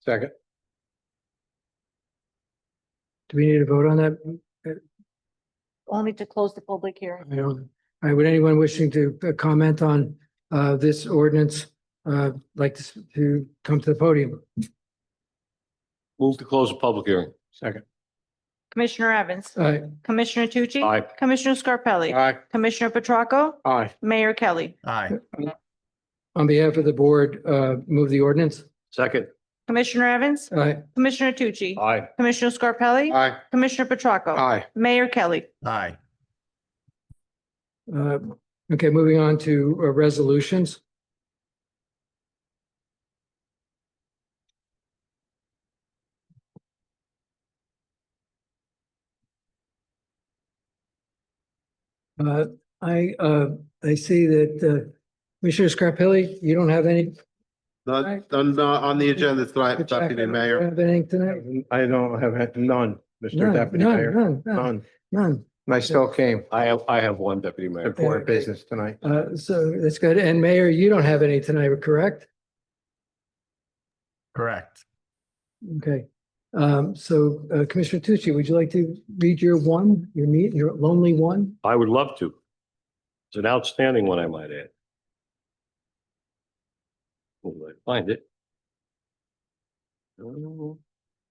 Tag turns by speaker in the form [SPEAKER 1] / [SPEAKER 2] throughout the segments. [SPEAKER 1] Second.
[SPEAKER 2] Do we need to vote on that?
[SPEAKER 3] only to close the public hearing.
[SPEAKER 2] I don't, I would anyone wishing to uh, comment on uh this ordinance uh like to s- to come to the podium?
[SPEAKER 1] Move to close the public hearing. Second.
[SPEAKER 3] Commissioner Evans,
[SPEAKER 2] Aye.
[SPEAKER 3] Commissioner Tucci.
[SPEAKER 1] Aye.
[SPEAKER 3] Commissioner Scarpelli.
[SPEAKER 1] Aye.
[SPEAKER 3] Commissioner Petracca,
[SPEAKER 1] Aye.
[SPEAKER 3] Mayor Kelly.
[SPEAKER 4] Aye.
[SPEAKER 2] On behalf of the board, uh move the ordinance.
[SPEAKER 1] Second.
[SPEAKER 3] Commissioner Evans,
[SPEAKER 2] Aye.
[SPEAKER 3] Commissioner Tucci.
[SPEAKER 1] Aye.
[SPEAKER 3] Commissioner Scarpelli.
[SPEAKER 1] Aye.
[SPEAKER 3] Commissioner Petracca,
[SPEAKER 1] Aye.
[SPEAKER 3] Mayor Kelly.
[SPEAKER 4] Aye.
[SPEAKER 2] Uh, okay, moving on to uh, resolutions. Uh, I, uh, I see that, uh, Commissioner Scarpelli, you don't have any. Aye.
[SPEAKER 5] None, none, uh, on the agenda tonight, Deputy Mayor.
[SPEAKER 2] Have anything tonight?
[SPEAKER 1] I don't have had none, Mr.
[SPEAKER 2] None,
[SPEAKER 1] Deputy
[SPEAKER 2] none,
[SPEAKER 1] Mayor.
[SPEAKER 2] none, none,
[SPEAKER 1] None.
[SPEAKER 2] none.
[SPEAKER 5] And I still came.
[SPEAKER 1] I have, I have one, Deputy Mayor.
[SPEAKER 5] Important business tonight.
[SPEAKER 2] Uh, so that's good. And Mayor, you don't have any tonight, correct?
[SPEAKER 4] Correct.
[SPEAKER 2] Okay, um, so uh, Commissioner Tucci, would you like to read your one, your meet, your lonely one?
[SPEAKER 1] I would love to. It's an outstanding one, I might add. Will I Find it. Oh.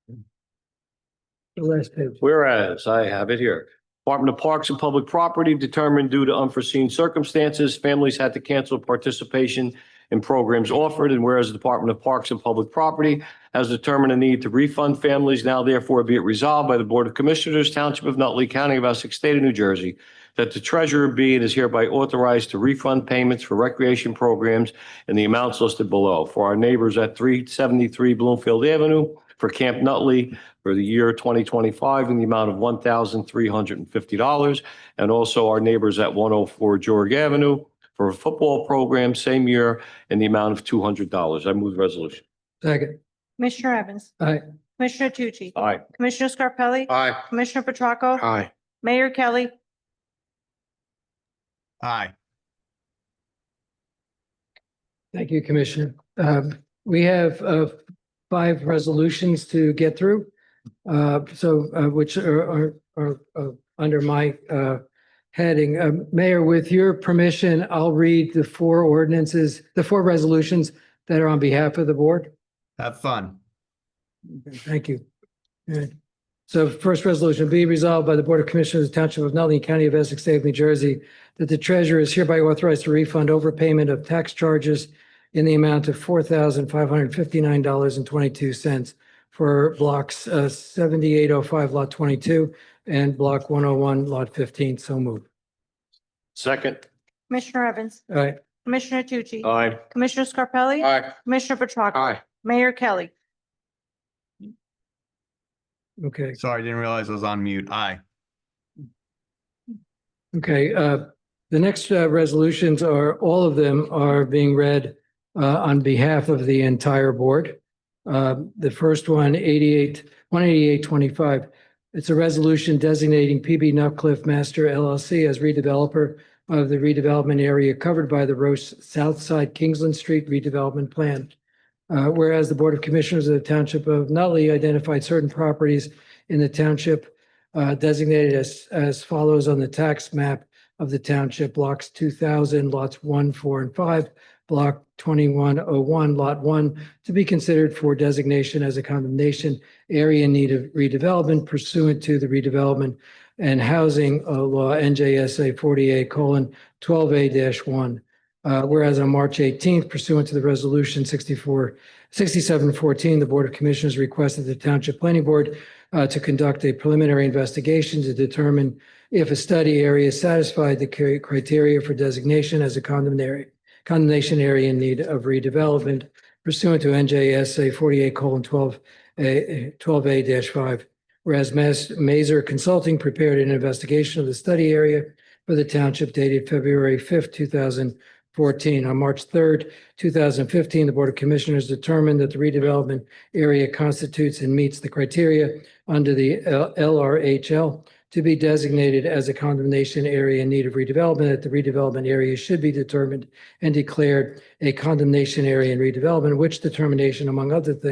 [SPEAKER 2] The last page.
[SPEAKER 1] Whereas, I have it here. Department of Parks and Public Property determined due to unforeseen circumstances, families had to cancel participation in programs offered, and whereas the Department of Parks and Public Property has determined a need to refund families, now therefore be it resolved by the Board of Commissioners, Township of Nutley, County of Essex, State of New Jersey, that the treasurer be and is hereby authorized to refund payments for recreation programs in the amounts listed below for our neighbors at three seventy-three Bloomfield Avenue, for Camp Nutley, for the year 2025 in the amount of $1,350. And also our neighbors at 104 George Avenue for a football program same year in the amount of $200. I move the resolution.
[SPEAKER 2] Second,
[SPEAKER 3] Commissioner Evans,
[SPEAKER 2] aye,
[SPEAKER 3] Commissioner Tucci.
[SPEAKER 1] Aye.
[SPEAKER 3] Commissioner Scarpelli.
[SPEAKER 5] Aye.
[SPEAKER 3] Commissioner Petracca,
[SPEAKER 5] Aye.
[SPEAKER 3] Mayor Kelly.
[SPEAKER 4] Aye.
[SPEAKER 2] thank you, Commissioner. Um, we have, uh, five resolutions to get through. Uh, so, uh, which are, are, are, uh, under my, uh, heading. Um Mayor, with your permission, I'll read the four ordinances, the four resolutions that are on behalf of the board.
[SPEAKER 4] Have fun.
[SPEAKER 2] Okay, Thank you. All right. So first resolution, be resolved by the Board of Commissioners of the Township of Nutley County of Essex State of New Jersey that the treasurer is hereby authorized to refund overpayment of tax charges in the amount of four thousand five hundred fifty-nine dollars and twenty-two cents for blocks uh, seventy-eight oh five lot twenty-two and block one oh one lot fifteen. So moved.
[SPEAKER 1] Second.
[SPEAKER 3] Commissioner Evans,
[SPEAKER 2] All right.
[SPEAKER 3] Commissioner Tucci.
[SPEAKER 1] Aye.
[SPEAKER 3] Commissioner Scarpelli.
[SPEAKER 5] Aye.
[SPEAKER 3] Commissioner Petracca,
[SPEAKER 5] Aye.
[SPEAKER 3] Mayor Kelly.
[SPEAKER 2] Okay.
[SPEAKER 4] Sorry, didn't realize I was on mute. Aye.
[SPEAKER 2] Okay, uh, the next uh, resolutions are, all of them are being read uh, on behalf of the entire board. Uh, The first one, 88, 18825, it's a resolution designating PB Nutcliff Master LLC as redeveloper of the redevelopment area covered by the Roche South Side Kingsland Street redevelopment plan. Uh, Whereas the Board of Commissioners of the Township of Nutley identified certain properties in the township uh, designated as, as follows on the tax map of the township, blocks two thousand, lots one, four, and five, block twenty-one oh one, lot one, to be considered for designation as a condemnation area in need of redevelopment pursuant to the redevelopment and housing uh, law NJSA forty-eight colon twelve A one. Uh, whereas on March eighteenth pursuant to the resolution 64 6714, the Board of Commissioners requested the Township Planning Board uh, to conduct a preliminary investigation to determine if a study area satisfied the cri- criteria for designation as a condemnation, condemnation area in need of redevelopment pursuant to NJSA forty-eight colon twelve, A, twelve A five. Whereas Mas- Mazer Consulting prepared an investigation of the study area for the township dated February fifth, two thousand fourteen. On March third, two thousand fifteen, the Board of Commissioners determined that the redevelopment area constitutes and meets the criteria under the L- LRHL to be designated as a condemnation area in need of redevelopment, that the redevelopment area should be determined and declared a condemnation area in redevelopment, which determination, among other things,